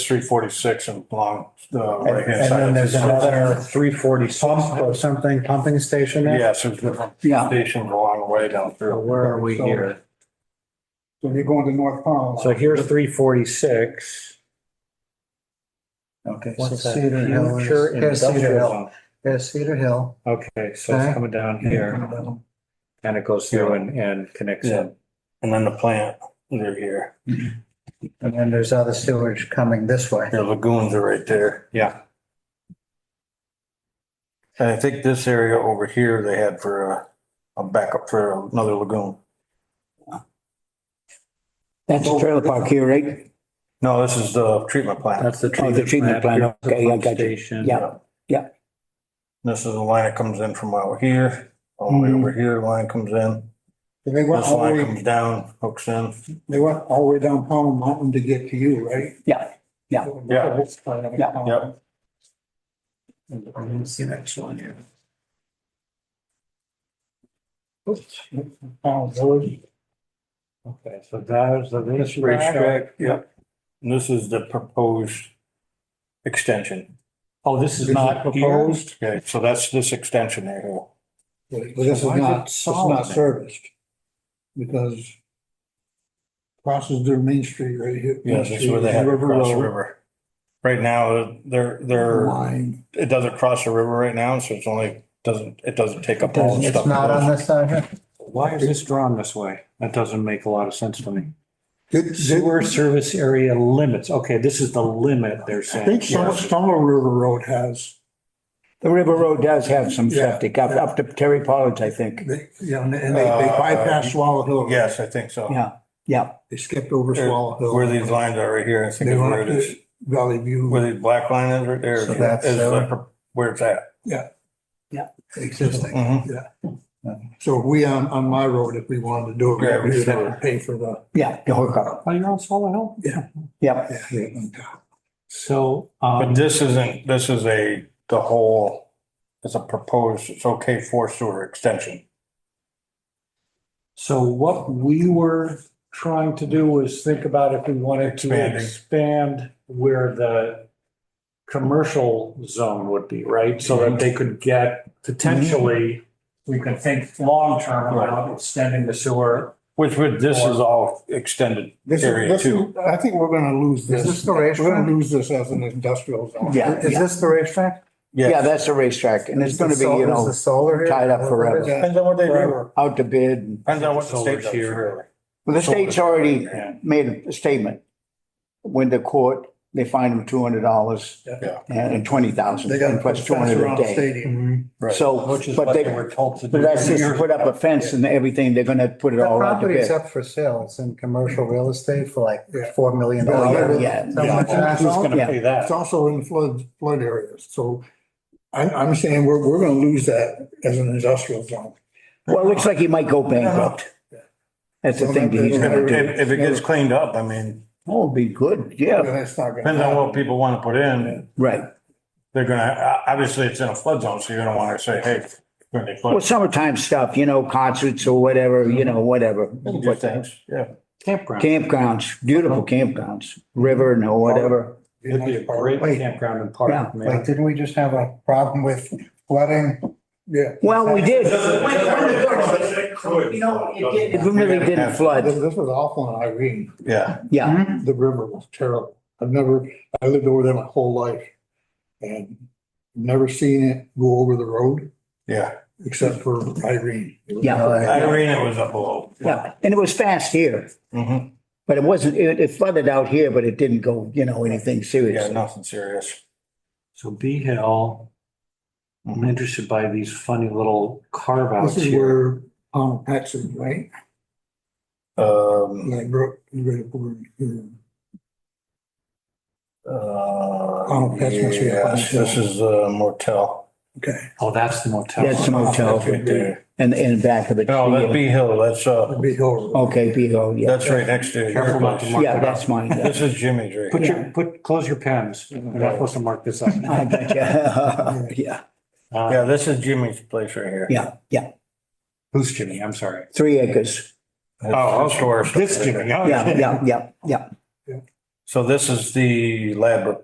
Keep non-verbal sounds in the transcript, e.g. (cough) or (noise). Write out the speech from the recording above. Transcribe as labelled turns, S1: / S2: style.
S1: three forty-six and along the
S2: And
S1: right hand
S2: and
S1: side.
S2: then
S1: of the
S2: there's another
S1: street.
S2: three forty pump or something, pumping station there?
S1: Yes, there's different
S3: Yeah.
S1: stations along the way down
S2: So
S1: through.
S2: Where are we here?
S4: So you're going to North
S1: uh,
S4: Powell.
S2: So here's three forty-six.
S3: Okay, so
S2: What's that?
S3: Cedar Hill is,
S2: Future
S3: here's Cedar
S2: industrial
S3: Hill,
S2: zone.
S3: here's Cedar Hill.
S2: Okay, so it's
S3: Okay.
S2: coming down here and it goes through and, and connects in.
S1: And then the plant, they're here.
S3: And then there's other sewage coming this way.
S1: Your lagoons are right there.
S2: Yeah,
S1: And I think this area over here, they had for a, a backup for another lagoon.
S5: That's the trailer park here, right?
S1: No, this is the treatment plant.
S2: that's the.
S5: Oh, the treatment plant, okay, I got you. Yeah.
S1: This is the line that comes in from out here, all the way
S5: Mhm.
S1: over
S2: Hmm.
S1: here, the line comes in.
S4: They went
S1: This
S4: all the
S1: line
S4: way,
S1: comes down, hooks in.
S4: they went all the way down Powell Mountain to get to you, right?
S5: Yeah, yeah.
S1: Yeah.
S5: Yeah.
S1: Yep.
S3: see next one here.
S4: Powell Village.
S2: Okay, so that is the.
S1: This racetrack, yep. And this is the proposed extension.
S2: Oh, this is not proposed?
S1: Okay, so that's this extension right here.
S4: But this is
S2: Why is it
S4: not, it's not
S2: solid?
S4: serviced. Because crosses their main street right here.
S1: Yes, that's where they have to
S4: River
S1: cross the
S4: Road,
S1: river. Right now, they're, they're,
S4: Line.
S1: it doesn't cross the river right now, so it's only, doesn't, it doesn't take up all the stuff.
S3: It's not on this side here?
S2: Why is this drawn this way? That doesn't make a lot of sense to me.
S4: Did- did-
S2: Sewer service area limits. Okay, this is the limit they're
S4: I
S2: saying.
S4: think some, some of River Road has,
S5: The River Road does have some
S4: Yeah.
S5: septic up, up to Terry Pollard's, I think.
S4: they, you know, and they they
S1: Uh,
S4: bypassed Swallow Hill.
S1: Yes, I think so.
S5: Yeah, yeah.
S4: They skipped over Swallow Hill.
S1: Where these lines are right here, I think
S4: They
S1: is
S4: went
S1: where
S4: up
S1: it is.
S4: to Valley View
S1: Where the black line is right there,
S3: So that's
S1: is
S3: sewer?
S1: the- where it's at.
S4: existing.
S1: Mhm.
S4: So if we on, on my road, if we wanted to do it,
S1: Yeah, we
S4: we'd have
S1: should.
S4: to pay for the,
S5: Yeah, the hookup.
S2: Oh, you're on Swallow Hill?
S5: Yeah,
S4: yeah, yeah.
S2: So,
S1: But
S2: um,
S1: this isn't, this is a, the whole, it's a proposed, it's okay for sewer extension.
S2: so what we were trying to do was think about if we wanted to
S1: Expanding.
S2: expand where the commercial zone would be, right? So that they could get potentially, we could think long-term about extending the sewer.
S1: Which would, this is all extended
S4: This is,
S1: area
S4: this
S1: too.
S4: is, I think we're gonna lose this.
S3: this the
S4: We're
S3: racetrack?
S4: gonna lose this as an industrial zone.
S5: yeah,
S3: Is
S5: yeah.
S3: this the racetrack?
S5: Yeah, that's a racetrack and it's gonna be, you
S3: Is
S5: know,
S3: the solar here?
S5: tied up forever.
S1: Depends on what they do.
S4: Forever.
S5: out to bid. and-
S1: Depends on what the
S2: Solar
S1: state's here.
S5: Well, the state's already
S1: Yeah.
S5: made a statement. When the court, they fine them two hundred dollars
S1: Yeah.
S5: and twenty thousand
S4: They got
S5: and
S4: to
S5: plus
S4: put
S5: two
S4: fence
S5: hundred a
S4: around the
S5: day.
S4: stadium.
S1: Right.
S5: So,
S2: Which is
S5: but
S2: what
S5: they,
S2: they were told to do.
S5: but that's just to put up a fence and everything. They're gonna put it
S3: The
S5: all out to
S3: property's
S5: bid.
S3: up for sale. It's in commercial real estate for
S4: Yeah.
S3: like four million
S5: Oh,
S3: dollars.
S5: yeah,
S3: So
S2: Yeah,
S3: much that's
S2: Who's
S3: all.
S2: gonna
S5: yeah.
S2: pay that?
S4: It's also in flood, flood areas, so I, I'm saying we're, we're gonna lose that as an industrial zone.
S5: Well, it looks like he might go bankrupt. That's the thing that he's gonna do.
S1: If, if it gets cleaned up, I mean,
S5: Oh, it'd be good, yeah,
S4: That's not gonna.
S1: depends on
S4: happen.
S1: what people want to put in.
S5: right.
S1: They're gonna, o- obviously, it's in a flood zone, so you're gonna want to say, hey, when they
S5: Well,
S1: flood.
S5: summertime stuff, you know, concerts or whatever, you know, whatever.
S1: do things, Yeah.
S2: Campground.
S5: Campgrounds, beautiful campgrounds, river and
S1: Oh.
S5: whatever.
S2: It'd be a great campground and
S5: Yeah.
S2: park, man.
S3: Like, didn't we just have a problem with flooding?
S4: Yeah.
S5: Well, we did.
S6: You know, it did.
S5: It really didn't
S4: This,
S5: flood,
S4: this was awful in Irene,
S1: Yeah,
S5: yeah.
S4: the river was terrible. I've never, I lived over there my whole life and never seen it go over the road
S1: yeah.
S4: except for Irene.
S5: Yeah.
S1: Irene, it was up below.
S5: Yeah, and it was fast here,
S1: Mhm.
S5: but it wasn't, it it flooded out here, but it didn't go, you know, anything
S1: Yeah,
S5: serious.
S1: nothing serious.
S2: So B Hill, I'm interested by these funny little carve outs
S4: This is
S2: here.
S4: where, um, Paxton, right?
S1: Um,
S4: Like, bro, you ready for, you
S5: Oh,
S1: uh,
S4: that's what you-
S1: yes, this is uh, a motel.
S4: okay.
S2: Oh, that's the motel.
S5: That's the motel
S1: Right there.
S5: and, and back of it.
S1: No, that's Bee Hill, that's, uh,
S4: That'd be horrible.
S5: Okay, below, yeah.
S1: that's right next to your
S2: Careful not to
S1: place.
S2: mark
S5: Yeah,
S2: it
S5: that's
S2: up.
S5: mine. yeah.
S1: This is Jimmy's right
S2: Put
S1: here.
S2: your, put, close your pens. You're not supposed to mark this up.
S5: I gotcha. (laughs) Yeah,
S1: Yeah,
S2: Uh,
S1: this is Jimmy's place right here.
S5: yeah, yeah.
S2: Who's Jimmy? I'm sorry.
S5: Three acres.
S1: That's-
S2: Oh,
S1: that's where-
S2: This Jimmy. oh,
S5: Yeah, yeah, yeah, yeah.
S1: So this is the lab